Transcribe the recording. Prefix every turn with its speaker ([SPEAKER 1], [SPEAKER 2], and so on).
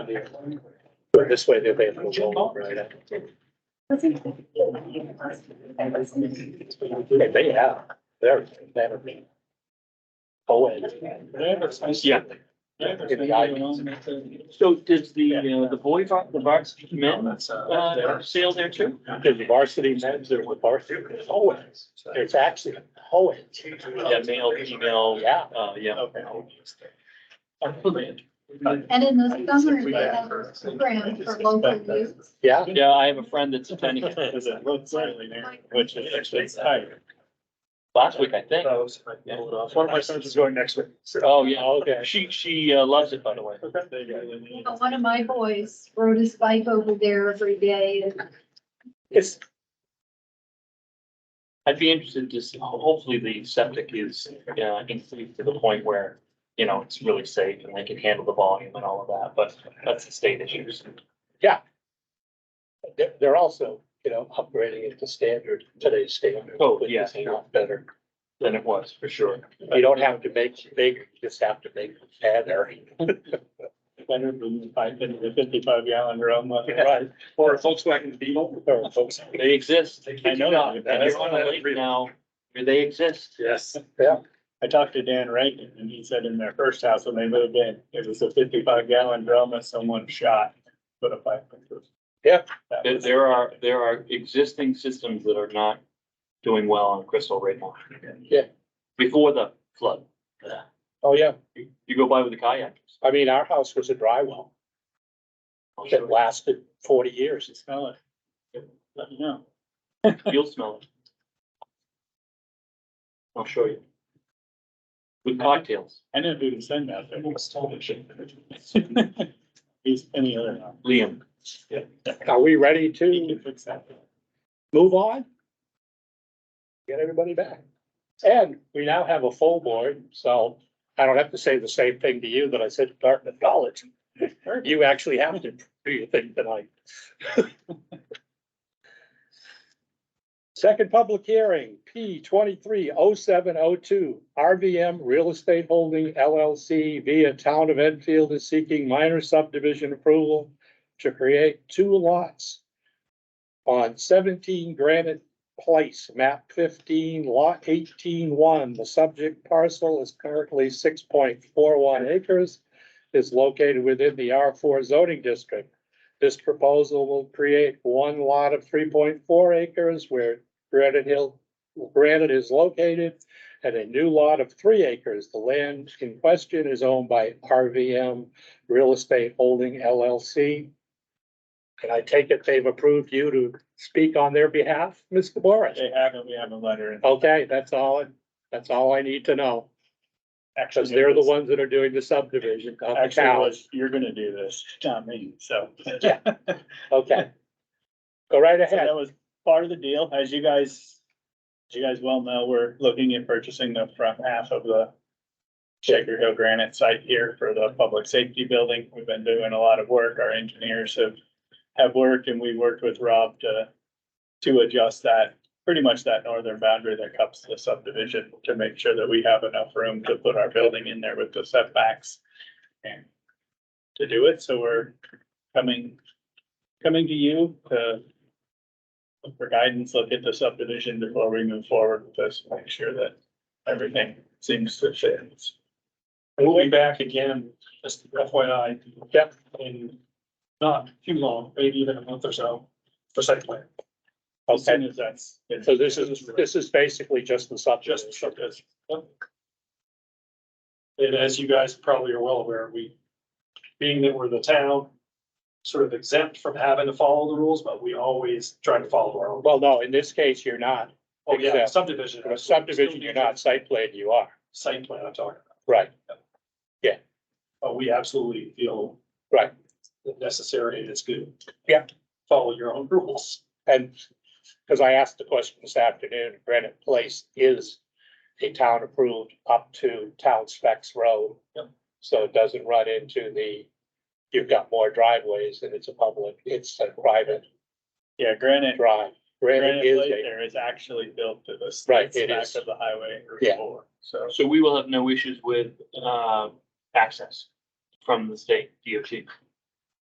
[SPEAKER 1] But this way they'll be able to roll right up. Hey, They have, they're, they're. Oh,
[SPEAKER 2] Yeah. So does the, uh, the boy, vo- the varsity men, uh, sail there too?
[SPEAKER 1] There's varsity men's, there's varsity, always, there's actually always.
[SPEAKER 2] Yeah, male, female,
[SPEAKER 1] Yeah.
[SPEAKER 2] uh, yeah.
[SPEAKER 3] And in the summer, they have programs for local youth.
[SPEAKER 1] Yeah.
[SPEAKER 2] Yeah, I have a friend that's attending it.
[SPEAKER 1] Which is actually, it's
[SPEAKER 2] Last week, I think.
[SPEAKER 4] One of my sons is going next week.
[SPEAKER 2] Oh, yeah.
[SPEAKER 1] okay.
[SPEAKER 2] She, she uh, loves it, by the way.
[SPEAKER 3] You know, One of my boys rode his bike over there every day and
[SPEAKER 1] It's,
[SPEAKER 2] I'd be interested to see, ho- hopefully the septic is, uh, increased to the point where, you know, it's really safe and they can handle the volume and all of that, but that's the state issues.
[SPEAKER 1] they're, they're also, you know, upgrading it to standard, today's standard.
[SPEAKER 2] Oh,
[SPEAKER 1] which
[SPEAKER 2] yeah.
[SPEAKER 1] is A lot better.
[SPEAKER 2] Than it was, for sure.
[SPEAKER 1] You don't have to make big, you just have to make it better.
[SPEAKER 4] Better than five, the fifty-five gallon drum. uh,
[SPEAKER 1] Right.
[SPEAKER 4] Or a Volkswagen Beetle. Or a Volkswagen.
[SPEAKER 2] They exist.
[SPEAKER 4] I
[SPEAKER 2] I know.
[SPEAKER 4] know.
[SPEAKER 2] And they're on a lake now, where they exist.
[SPEAKER 4] Yes.
[SPEAKER 1] Yeah.
[SPEAKER 4] I talked to Dan Rankin and he said in their first house when they moved in, it was a fifty-five gallon drum that someone shot. Put a pipe. in.
[SPEAKER 1] Yeah.
[SPEAKER 4] That
[SPEAKER 2] There,
[SPEAKER 4] was-
[SPEAKER 2] there are, there are existing systems that are not doing well on Crystal right now.
[SPEAKER 1] Yeah.
[SPEAKER 2] Before the flood,
[SPEAKER 1] Oh, yeah.
[SPEAKER 2] you you go by with the kayakers.
[SPEAKER 1] I mean, our house was a dry well
[SPEAKER 2] I'll show
[SPEAKER 1] that
[SPEAKER 2] you.
[SPEAKER 1] lasted forty years.
[SPEAKER 4] Just smell it. Let me know.
[SPEAKER 2] You'll smell it. I'll show you. With cocktails,
[SPEAKER 4] I know who to send out there. He's any other now.
[SPEAKER 2] Liam.
[SPEAKER 1] Are we ready
[SPEAKER 4] He
[SPEAKER 1] to
[SPEAKER 4] can fix that.
[SPEAKER 1] move on? Get everybody back. And we now have a full board, so I don't have to say the same thing to you that I said to Dartmouth College. You actually have to do your thing tonight. Second public hearing, P twenty-three oh seven oh two, RVM Real Estate Holding LLC via Town of Enfield is seeking minor subdivision approval to create two lots on seventeen Granite Place, map fifteen, lot eighteen one. The subject parcel is currently six point four one acres, is located within the R four zoning district. This proposal will create one lot of three point four acres where Granite Hill, Granite is located, and a new lot of three acres. The land in question is owned by RVM Real Estate Holding LLC. And I take it they've approved you to speak on their behalf, Mr. Boris?
[SPEAKER 4] They haven't, we have a letter. in.
[SPEAKER 1] Okay, that's all, that's all I need to know,
[SPEAKER 4] Actually,
[SPEAKER 1] because they're the ones that are doing the subdivision of the
[SPEAKER 4] Actually, it
[SPEAKER 1] town.
[SPEAKER 4] was, you're gonna do this, not me, so.
[SPEAKER 1] Yeah. Okay. Go right
[SPEAKER 4] So
[SPEAKER 1] ahead.
[SPEAKER 4] that was part of the deal, as you guys, as you guys well know, we're looking at purchasing the front half of the Shaker Hill Granite site here for the public safety building. We've been doing a lot of work, our engineers have, have worked, and we worked with Rob to, to adjust that, pretty much that northern boundary that cups the subdivision to make sure that we have enough room to put our building in there with the setbacks and to do it, so we're coming, coming to you to look for guidance, look at the subdivision before we move forward with this, make sure that everything seems to fit.
[SPEAKER 5] We'll be back again, just FYI.
[SPEAKER 1] Yep.
[SPEAKER 5] In not too long, maybe even a month or so, for site plan.
[SPEAKER 4] As soon
[SPEAKER 1] Okay,
[SPEAKER 4] as that's.
[SPEAKER 1] so this is, this is basically just the
[SPEAKER 5] Just
[SPEAKER 1] subdivision.
[SPEAKER 5] for this. And as you guys probably are well aware, we, being that we're the town, sort of exempt from having to follow the rules, but we always try to follow our own.
[SPEAKER 1] Well, no, in this case, you're not.
[SPEAKER 5] Oh, yeah,
[SPEAKER 1] Exempt.
[SPEAKER 5] subdivision.
[SPEAKER 1] For a subdivision, you're not, site plan, you are.
[SPEAKER 5] Site plan I'm talking about,
[SPEAKER 1] Right.
[SPEAKER 5] but we absolutely feel.
[SPEAKER 1] Right.
[SPEAKER 5] Necessary and it's good.
[SPEAKER 1] Yeah.
[SPEAKER 5] Follow your own rules.
[SPEAKER 1] And, because I asked the question this afternoon, Granite Place is a town approved up to town specs road.
[SPEAKER 5] Yep.
[SPEAKER 1] So it doesn't run into the, you've got more driveways and it's a public, it's a private
[SPEAKER 4] Yeah, granite,
[SPEAKER 1] drive.
[SPEAKER 4] granite
[SPEAKER 1] Granite is
[SPEAKER 4] plate
[SPEAKER 1] a,
[SPEAKER 4] there is actually built to the.
[SPEAKER 1] Right,
[SPEAKER 4] the
[SPEAKER 1] it
[SPEAKER 4] back
[SPEAKER 1] is.
[SPEAKER 4] Of the highway. Route
[SPEAKER 1] Yeah.
[SPEAKER 4] four, So.
[SPEAKER 2] So we will have no issues with, uh, access from the state DOT.